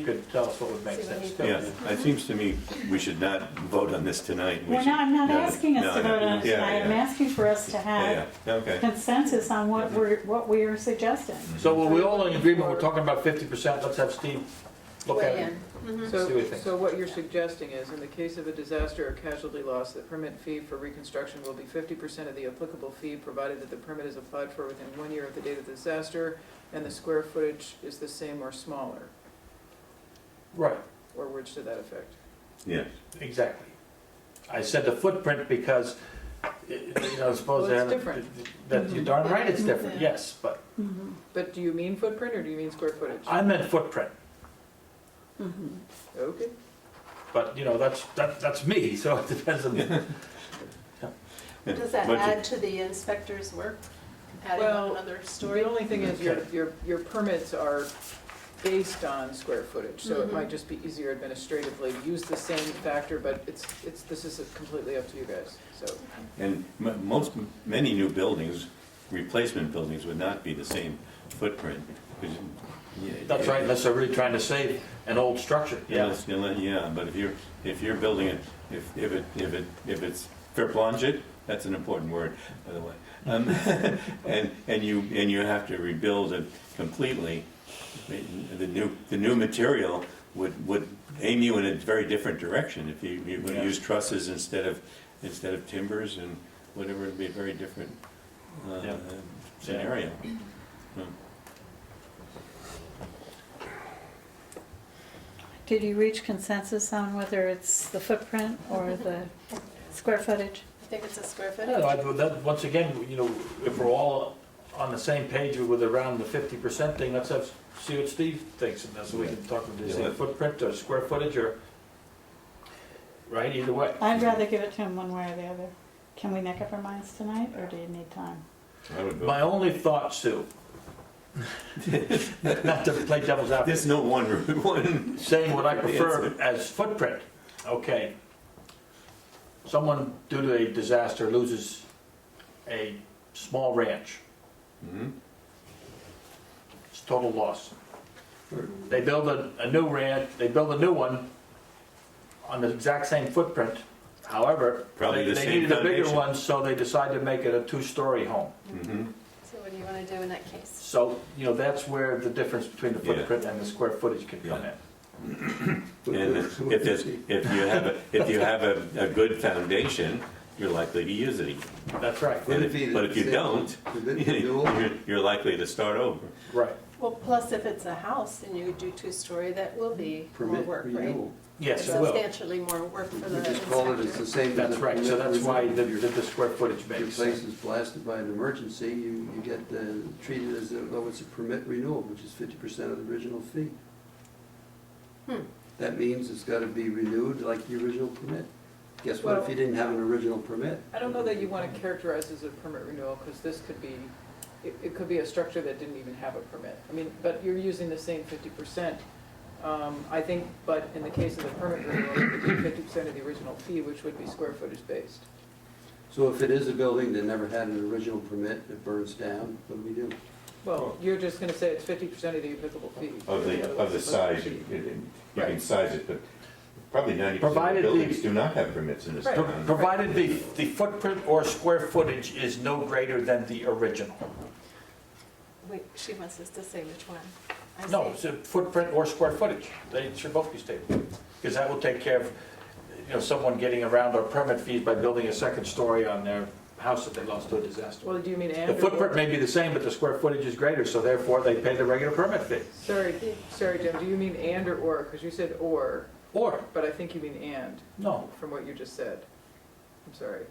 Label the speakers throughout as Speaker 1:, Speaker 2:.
Speaker 1: You could tell us what would make
Speaker 2: See what
Speaker 1: sense.
Speaker 2: he
Speaker 1: too.
Speaker 3: Yeah, it seems to me we should not vote on this tonight. We
Speaker 4: Well, no,
Speaker 3: should-
Speaker 4: I'm not
Speaker 3: no,
Speaker 4: asking us to
Speaker 3: no,
Speaker 4: vote on it
Speaker 3: yeah,
Speaker 4: tonight. I'm
Speaker 3: yeah,
Speaker 4: asking for us to
Speaker 3: Yeah,
Speaker 4: have
Speaker 3: yeah, Mm-hmm. okay.
Speaker 4: consensus on what we're, what we are suggesting.
Speaker 1: So were we all in agreement, we're talking about fifty percent, let's have Steve look at
Speaker 2: Weigh
Speaker 1: it.
Speaker 2: in.
Speaker 1: See what he
Speaker 5: So,
Speaker 1: thinks.
Speaker 5: so what you're suggesting is, in the case of a disaster or casualty loss, the permit fee for reconstruction will be fifty percent of the applicable fee, provided that the permit is applied for within one year of the date of the disaster, and the square footage is the same or smaller,
Speaker 1: Right,
Speaker 5: or words to that effect.
Speaker 3: Yeah,
Speaker 1: exactly. I said the footprint because, eh, you know, suppose
Speaker 5: Well,
Speaker 1: they
Speaker 5: it's
Speaker 1: had, a- that you're darn right it's different,
Speaker 2: Yeah.
Speaker 1: yes, but
Speaker 4: Mhm,
Speaker 5: But do you mean footprint, or do you mean square footage?
Speaker 1: I meant footprint.
Speaker 4: mhm.
Speaker 5: Okay,
Speaker 1: But, you know, that's, that, that's me, so it depends on,
Speaker 3: Yeah,
Speaker 2: Does that
Speaker 3: budget.
Speaker 2: add to the inspector's work? Adding
Speaker 5: Well,
Speaker 2: on another story?
Speaker 5: the only thing is, your,
Speaker 1: Okay.
Speaker 5: your, your permits are based on square footage, so
Speaker 2: Mhm.
Speaker 5: it might just be easier administratively, use the same factor, but it's, it's, this is completely up to you guys, so.
Speaker 3: and m- most, many new buildings, replacement buildings would not be the same footprint. 'cause you- yeah,
Speaker 1: that's right, unless they're really trying to save an old structure.
Speaker 3: Yeah, it's gonna- yeah, but if you're, if you're building it, if, if it, if it, if it's verplanget, that's an important word, by the way. Um, And, and you, and you have to rebuild it completely, the new, the new material would, would aim you in a very different direction. If you, you would
Speaker 1: Yeah.
Speaker 3: use trusses instead of, instead of timbers and whatever, it'd be a very different uh,
Speaker 1: Yeah.
Speaker 3: scenario.
Speaker 4: Did you reach consensus on whether it's the footprint or the square footage?
Speaker 2: I think it's a square
Speaker 1: I don't know,
Speaker 2: footage.
Speaker 1: I- that- once again, you know, if we're all on the same page with around the fifty percent thing, let's have, see what Steve thinks, and that's what we can talk about, the
Speaker 3: Yeah.
Speaker 1: same footprint or square footage or, right, either way.
Speaker 4: I'd rather give it to him one way or the other. Can we make up our minds tonight, or do you need time?
Speaker 3: I would vote.
Speaker 1: My only thought, Sue, not to play devil's
Speaker 3: There's
Speaker 1: advocate,
Speaker 3: no one, one,
Speaker 1: saying what I prefer as footprint, okay. Someone due to a disaster loses a small ranch,
Speaker 3: Mhm.
Speaker 1: It's total loss. They build a, a new ranch, they build a new one on the exact same footprint. However,
Speaker 3: Probably
Speaker 1: they
Speaker 3: the
Speaker 1: they
Speaker 3: same
Speaker 1: needed a bigger
Speaker 3: foundation.
Speaker 1: one, so they decided to make it a two-story home.
Speaker 3: Mhm.
Speaker 2: So what do you want to do in that case?
Speaker 1: So, you know, that's where the difference between the
Speaker 3: Yeah.
Speaker 1: footprint and the square footage can come
Speaker 3: Yeah.
Speaker 1: in.
Speaker 3: And if there's, if you have, a if you have a, a good foundation, you're likely to use it again.
Speaker 1: That's right,
Speaker 6: Would
Speaker 3: And
Speaker 6: it
Speaker 3: if-
Speaker 6: be the
Speaker 3: But if you
Speaker 6: same-
Speaker 3: don't,
Speaker 6: would it be dual?
Speaker 3: you're, you're likely to start over.
Speaker 1: right,
Speaker 2: Well, plus if it's a house and you do two-story, that will be more
Speaker 6: Permit
Speaker 2: work, right?
Speaker 6: renewal.
Speaker 1: yes, it will.
Speaker 2: Substantially more work for the
Speaker 6: We just call it, it's the
Speaker 2: inspector.
Speaker 6: same as.
Speaker 1: That's
Speaker 6: a
Speaker 1: right, so
Speaker 6: permit
Speaker 1: that's why
Speaker 6: renewal.
Speaker 1: the, the the square footage
Speaker 6: If Your
Speaker 1: makes
Speaker 6: place
Speaker 1: sense.
Speaker 6: is blasted by an emergency, you, you get uh, treated as though it's a permit renewal, which is fifty percent of the original fee.
Speaker 2: Hmm.
Speaker 6: That means it's gotta be renewed like the original permit. Guess what, if
Speaker 5: Well-
Speaker 6: you didn't have an original permit?
Speaker 5: I don't know that you want to characterize as a permit renewal, because this could be, it, it could be a structure that didn't even have a permit. I mean, but you're using the same fifty percent. Um, I think, but in the case of the permit renewal, it would be fifty percent of the original fee, which would be square footage based.
Speaker 6: So if it is a building that never had an original permit, it burns down, what do we do?
Speaker 5: Well, you're just gonna say it's fifty percent of the applicable fee.
Speaker 3: Of the, of the
Speaker 5: Otherwise,
Speaker 3: size,
Speaker 5: it's
Speaker 3: you
Speaker 5: cheap.
Speaker 3: can you can size it, but probably ninety percent
Speaker 1: Provided
Speaker 3: of
Speaker 1: the-
Speaker 3: buildings do not have permits in this
Speaker 5: Right.
Speaker 1: Pro-
Speaker 3: town.
Speaker 1: Provided the, the footprint or square footage is no greater than the original.
Speaker 2: Wait, she wants us to say which one. I
Speaker 1: No,
Speaker 2: see.
Speaker 1: it's a footprint or square footage. They should both be stated. Because that will take care of, you know, someone getting around our permit fees by building a second story on their house that they lost to a disaster.
Speaker 5: Well, do you mean and?
Speaker 1: The
Speaker 5: or
Speaker 1: footprint
Speaker 5: or?
Speaker 1: may be the same, but the square footage is greater, so therefore they pay the regular permit fee.
Speaker 5: Sorry, sorry, Jim, do you mean and or or? Because you said or,
Speaker 1: Or,
Speaker 5: but I think you mean and,
Speaker 1: no,
Speaker 5: from what you just said. I'm sorry.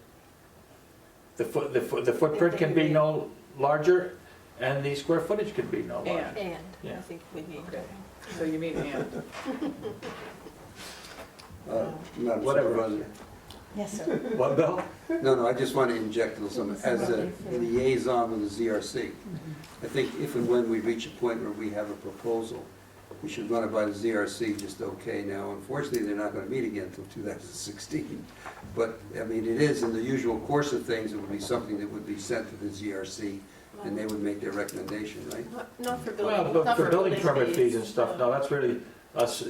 Speaker 1: the foot, the foot, the footprint can be no larger and the square footage can be no larger.
Speaker 5: And,
Speaker 2: And, I
Speaker 1: Yeah.
Speaker 2: think we need.
Speaker 5: Okay. so you mean and.
Speaker 6: Uh, Madam
Speaker 1: Whatever.
Speaker 6: Supervisor.
Speaker 4: Yes, sir.
Speaker 1: What, Bill?
Speaker 6: No, no, I just want to inject a little something, as a liaison with the ZRC. I think if and when we reach a point where we have a proposal, we should run it by the ZRC just okay now. Unfortunately, they're not going to meet again until 2016. But, I mean, it is in the usual course of things, it would be something that would be sent to the ZRC, and they would make their recommendation, right?
Speaker 2: Not- Not for
Speaker 1: Well,
Speaker 2: building,
Speaker 1: but
Speaker 2: not
Speaker 1: for
Speaker 2: for
Speaker 1: building permit fees and
Speaker 2: no.
Speaker 1: stuff, no, that's really us